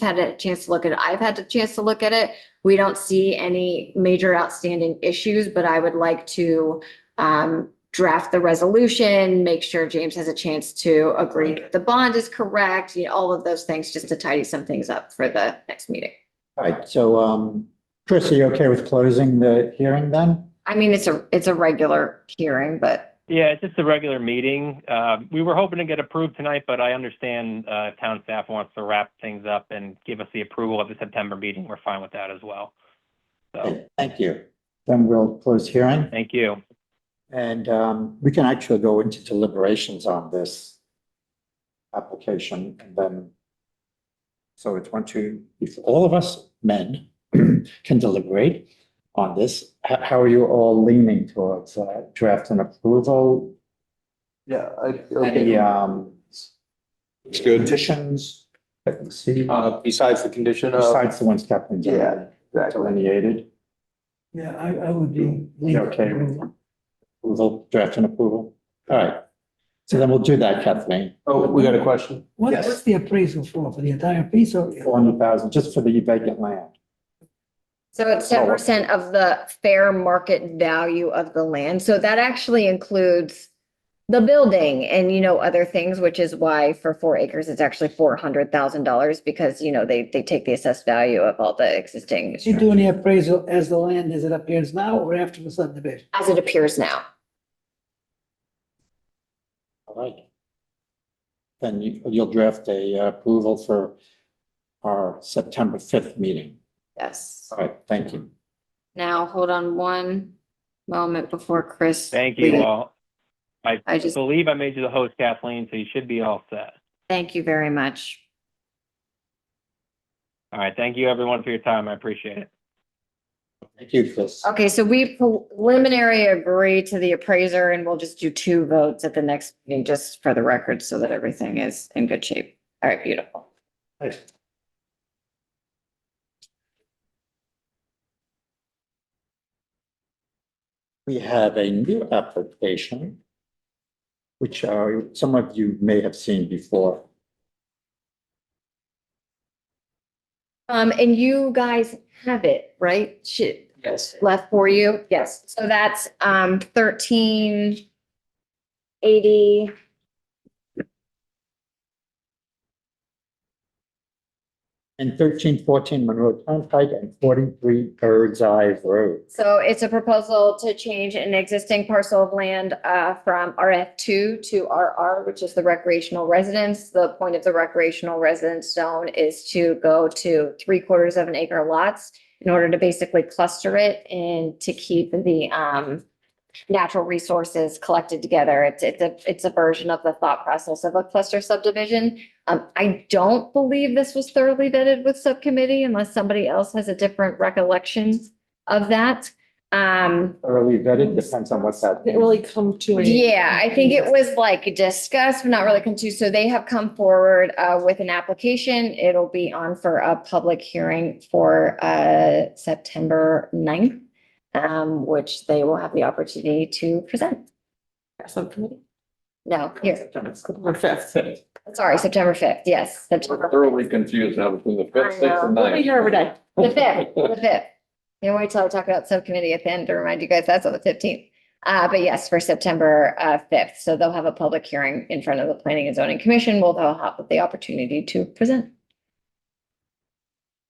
had a chance to look at it. I've had a chance to look at it. We don't see any major outstanding issues, but I would like to um, draft the resolution, make sure James has a chance to agree that the bond is correct, you know, all of those things, just to tidy some things up for the next meeting. All right, so, um, Chris, are you okay with closing the hearing then? I mean, it's a, it's a regular hearing, but Yeah, it's just a regular meeting. Uh, we were hoping to get approved tonight, but I understand, uh, town staff wants to wrap things up and give us the approval at the September meeting. We're fine with that as well. Oh, So, Thank you. Then we'll close hearing thank you. and, um, we can actually go into deliberations on this application and then. So it's one, two, if all of us men can deliberate on this, how, how are you all leaning towards, uh, draft and approval? Yeah, I. Any, um, It's good. conditions? that we see Uh, besides the condition of. besides the ones Captain's Yeah, exactly. delineated? Yeah, I, I would be. You okay with Approval, draft and approval. All right. So then we'll do that, Kathleen. Oh, we got a question? What, Yes. what's the appraisal for, for the entire piece or? Four hundred thousand, just for the vacant land. so it's ten percent of the fair market value of the land. So that actually includes the building and, you know, other things, which is why for four acres, it's actually four hundred thousand dollars because, you know, they, they take the assessed value of all the existing Is he doing the appraisal as the land as it appears now or after the subdivision? as it appears now. All right. Then you, you'll draft a uh, approval for our September fifth meeting. Yes. All right, thank you. Now, hold on one moment before Chris. Thank you reads. all. I I just, believe I made you the host, Kathleen, so you should be all set. thank you very much. All right, thank you everyone for your time. I appreciate it. Thank you, Chris. Okay, so we preliminary agree to the appraiser and we'll just do two votes at the next meeting, just for the record, so that everything is in good shape. All right, beautiful. We have a new application, which uh, some of you may have seen before. Um, and you guys have it, right? Should, Yes. left for you? Yes. So that's, um, thirteen eighty. And thirteen fourteen Monroe Turnpike and forty-three Bird's Eye Road. So it's a proposal to change an existing parcel of land uh, from RF two to RR, which is the recreational residence. The point of the recreational residence zone is to go to three quarters of an acre lots in order to basically cluster it and to keep the um, natural resources collected together. It's, it's a, it's a version of the thought process of a cluster subdivision. Um, I don't believe this was thoroughly vetted with subcommittee unless somebody else has a different recollection of that. Um, Early vetted, depends on what's Didn't happening. really come to a. yeah, I think it was like discussed, but not really come to, so they have come forward, uh, with an application. It'll be on for a public hearing for, uh, September 9th, um, which they will have the opportunity to present. Something. No, here, September fifth. We'll sorry, September fifth, yes, September, Thoroughly confused now between the fifth, sixth, and be here every day. the fifth, the fifth. You know, wait till I talk about subcommittee at the end to remind you guys that's on the fifteenth. Uh, but yes, for September, uh, fifth, so they'll have a public hearing in front of the Planning and Zoning Commission, where they'll have the opportunity to present.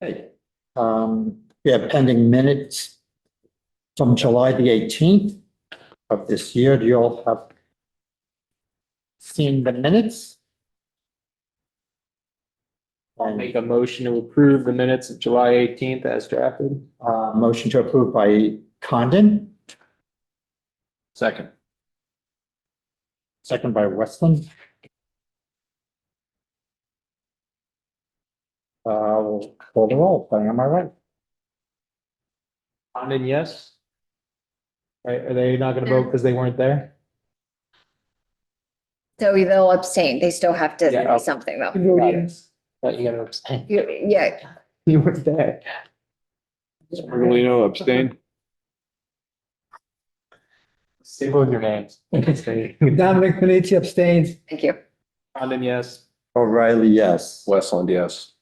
Hey, Um, we have pending minutes from July the eighteenth of this year. Do you all have seen the minutes? And, Make a motion to approve the minutes of July eighteenth as drafted. uh, motion to approve by Condon, Second. second by Westland. Uh, we'll call the roll, am I right? Condon, yes? Are, are they not gonna vote because they weren't there? So they'll abstain. They still have to Yeah. do something though. Yes. Thought you gotta abstain. You- Yeah, You weren't there. Merlino abstain. Say both your names. Dominic Panitia abstains. thank you. Condon, yes? O'Reilly, yes. Westland, yes.